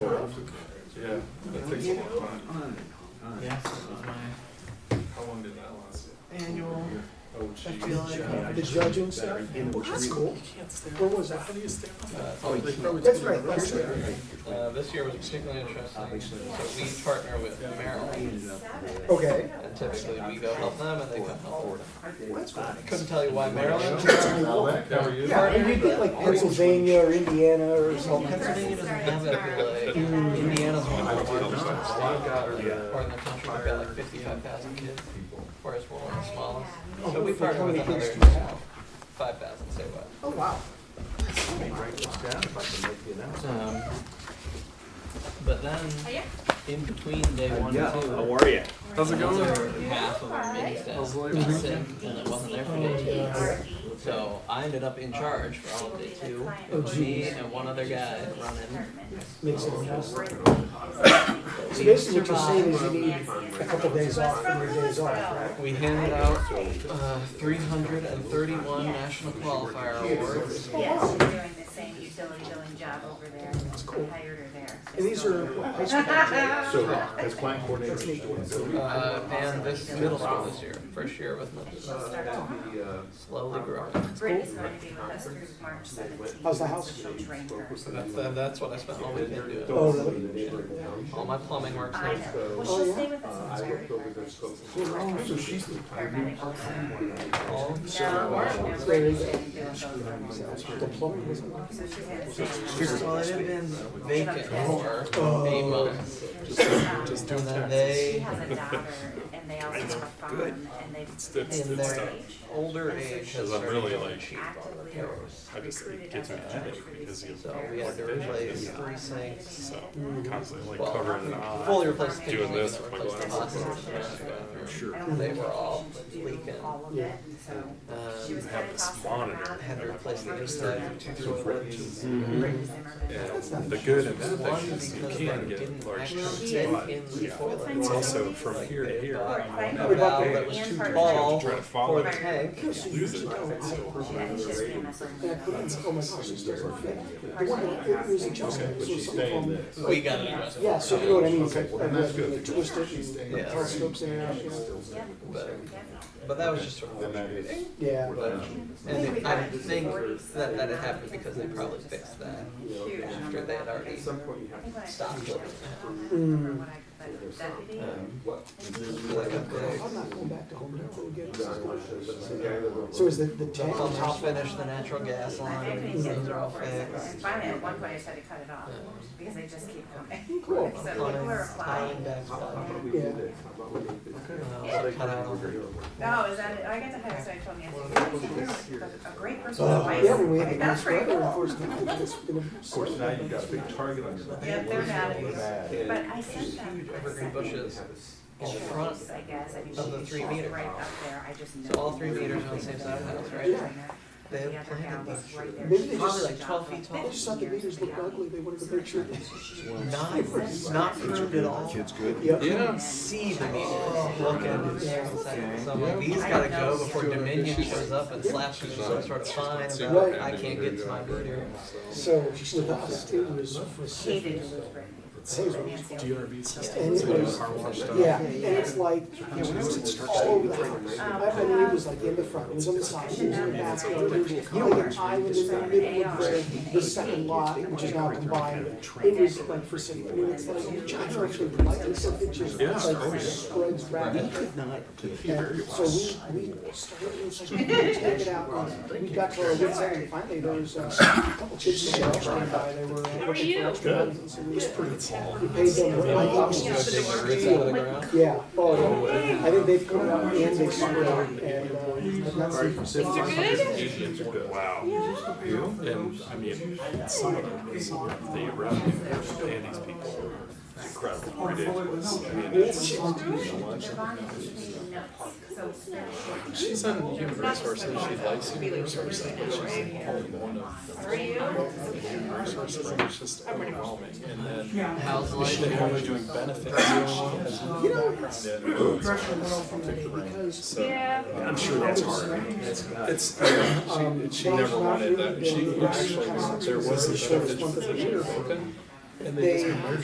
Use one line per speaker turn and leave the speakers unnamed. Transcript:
Yeah, that takes a long time.
Yes, it was
How long did that last?
my annual,
Oh,
I
geez.
feel like.
Yeah. uh, The judge and stuff?
Well,
that's cool.
You can't stare.
Where was that?
How do you stand on that?
Oh, you
can't. That's right, that's right.
Uh, this year was particularly interesting, so we partner with Merrill,
Okay.
and typically we go help them and they come help us.
That's cool.
Couldn't tell you why Maryland,
How are you?
Yeah, and you get like Pennsylvania or Indiana or something.
Pennsylvania doesn't have that big, like, Indiana's one of the largest, they've got, or in the country, they've got like fifty-five thousand kids, whereas we're one of the smallest. So we partner with another five thousand, say what.
Oh, wow.
Um, But then, in between day one and two. How
are ya?
How's it going?
Half of our meeting staff was sick, and it wasn't there for day two. So I ended up in charge for all of day two, it was me and one other guy running.
Makes it nice. So
We
basically what you're saying is you
survived.
need a couple days off from your days off, right?
We handed out, uh, three hundred and thirty-one national qualifier awards.
Yes, she's doing the same utility billing job over there. That's
cool.
I hired her there.
And these are what, high school graduates?
So, as plan coordinator.
That's neat.
Uh, and this middle school this year, first year with them,
And she'll start tomorrow.
slowly growing.
Brittany's going to be with us through March seventeenth.
How's the house?
She'll train her.
That's, and that's what I spent all weekend doing.
Oh, really?
All my plumbing works
I
now.
know. Well, she'll stay with us until January first.
Oh,
So she's the.
Paramedic.
All
No,
server
no,
hours.
Brittany's been doing those for a long time.
The plumbing was on.
So she's had the same.
Well, it had been vacant for eight months.
Just
And then
She
they,
has a daughter and they also have a farm and they've.
it's-
they're
in
it's
their
tough.
age,
older age, has
I'm really,
started to
like,
cheat on
Actively
repairs.
I just, it
recruited
gives me a
other
headache
countries
because you,
So we had to replace three sinks.
so, constantly like
Well,
covering it
Fully
on.
replaced the kitchen,
Doing
and
this with
then
my
replaced the
glasses.
faucets and the bathroom.
I
Sure.
don't
They
think
were all
she should do
leaking.
all of it, and so she was
Um,
have
kinda
this
tossing
monitor
around.
had to replace the
Brittany
inside of two toilets.
Brittany Zimmerman.
Mm-hmm. And the good and the
One,
bad is you
because
can
they
get
didn't
large
actually
chunks,
fit
but
in the toilet.
it's also from
Like,
here to
they
here.
bought
Right.
A valve that was
And
too
part-
tall
Try to
for
follow
the
it.
tank.
Use it.
And she just came
And
as a
I put it in, oh my gosh, it's just perfect. The one, that- it was adjustable, so something from
We got an adjustment.
Yeah, so you know what I mean, it's like,
well, then that's good.
they twist it and the
Yeah.
car slips in and out, you know?
But, but that was just sort of.
Then that is.
Yeah.
But, and I think that, that it happened because they probably fixed that
huge
after
number
they had
back
already
then.
stopped looking
I
at
don't remember what I, but deputy.
um,
it. Like a
I'm not going back to home Depot again. So
So
is the, the
big,
tank?
I'll I'll finish the natural gas
I
Um,
line,
think they
those
said
are all
go for it,
fixed.
and finally at one point I just had to cut it off, because they just keep coming.
Cool.
So people
Plumbing,
are
tying
applying.
back plumbing,
Yeah.
uh, cut out all the
No, Oh, is that, it? I got to hire somebody told me, I said, "You're a great person with advice."
Uh, Yeah, when we had the
Like, that's
nice
pretty
weather, of
cool.
course, now it's gonna. Of
course, now you've got a big target on your
Yeah,
back.
they're mad at you,
Bad.
but I sent them,
huge
I
evergreen
sent them.
bushes in front.
trees, I guess, I mean,
of the
she-
three
she's
meters.
right up there, I just know.
So all three meters on the same side of the house, right? They
The
had
other gal
planted
was
those.
right there.
Maybe they just-
She did
Probably like
the
12
job
feet
for
tall.
They just thought the
15 years,
meters looked
but
ugly, they wanted to make sure.
Not, not pruned at all.
good?
Yep.
You don't see the meters. Look at it. So I'm like,
Okay.
these gotta go before Dominion shows up and slaps me with some sort of fine about I can't get to my meter.
So with us, it was
Hated
ridiculous.
to lose Brittany. Nancy.
DRV
And
systems,
it
like
was,
car wash stuff.
yeah, and it's like, yeah, when I was at Stark
Um,
City, like,
uh,
I mean, it was like in the front, it was on the side, it was in the back, it was, you know, like an island in the middle of the, the second lot, which is now combined. It was like for city, I mean, it's like, you guys are actually polite, so it just
Yeah.
oh,
like spreads rapidly. And so we, we started, it was like, we it out, and we got to our wits end, and finally there was uh, a couple chips and shells came by, they were. uh, How are you? It was pretty small. We paid them, what, like,
Go take the roots out of the ground.
yeah, oh, yeah. I think they've come out and they've scored out and, uh, that's.
Wow. And I mean, some of the, the revenue and these people were incredible, ridiculous. I mean, it's,
Bonnie was making notes, so it's not-
she's on human resources, she likes human resources, but she's only one of human resources, and it's just overwhelming. And then
How's life?
They're only doing benefits.
You know, it's pressure went off from that because.
Yeah. I'm sure that's hard. It's, she, she never wanted that. She actually, there was a shortage position open and they just merged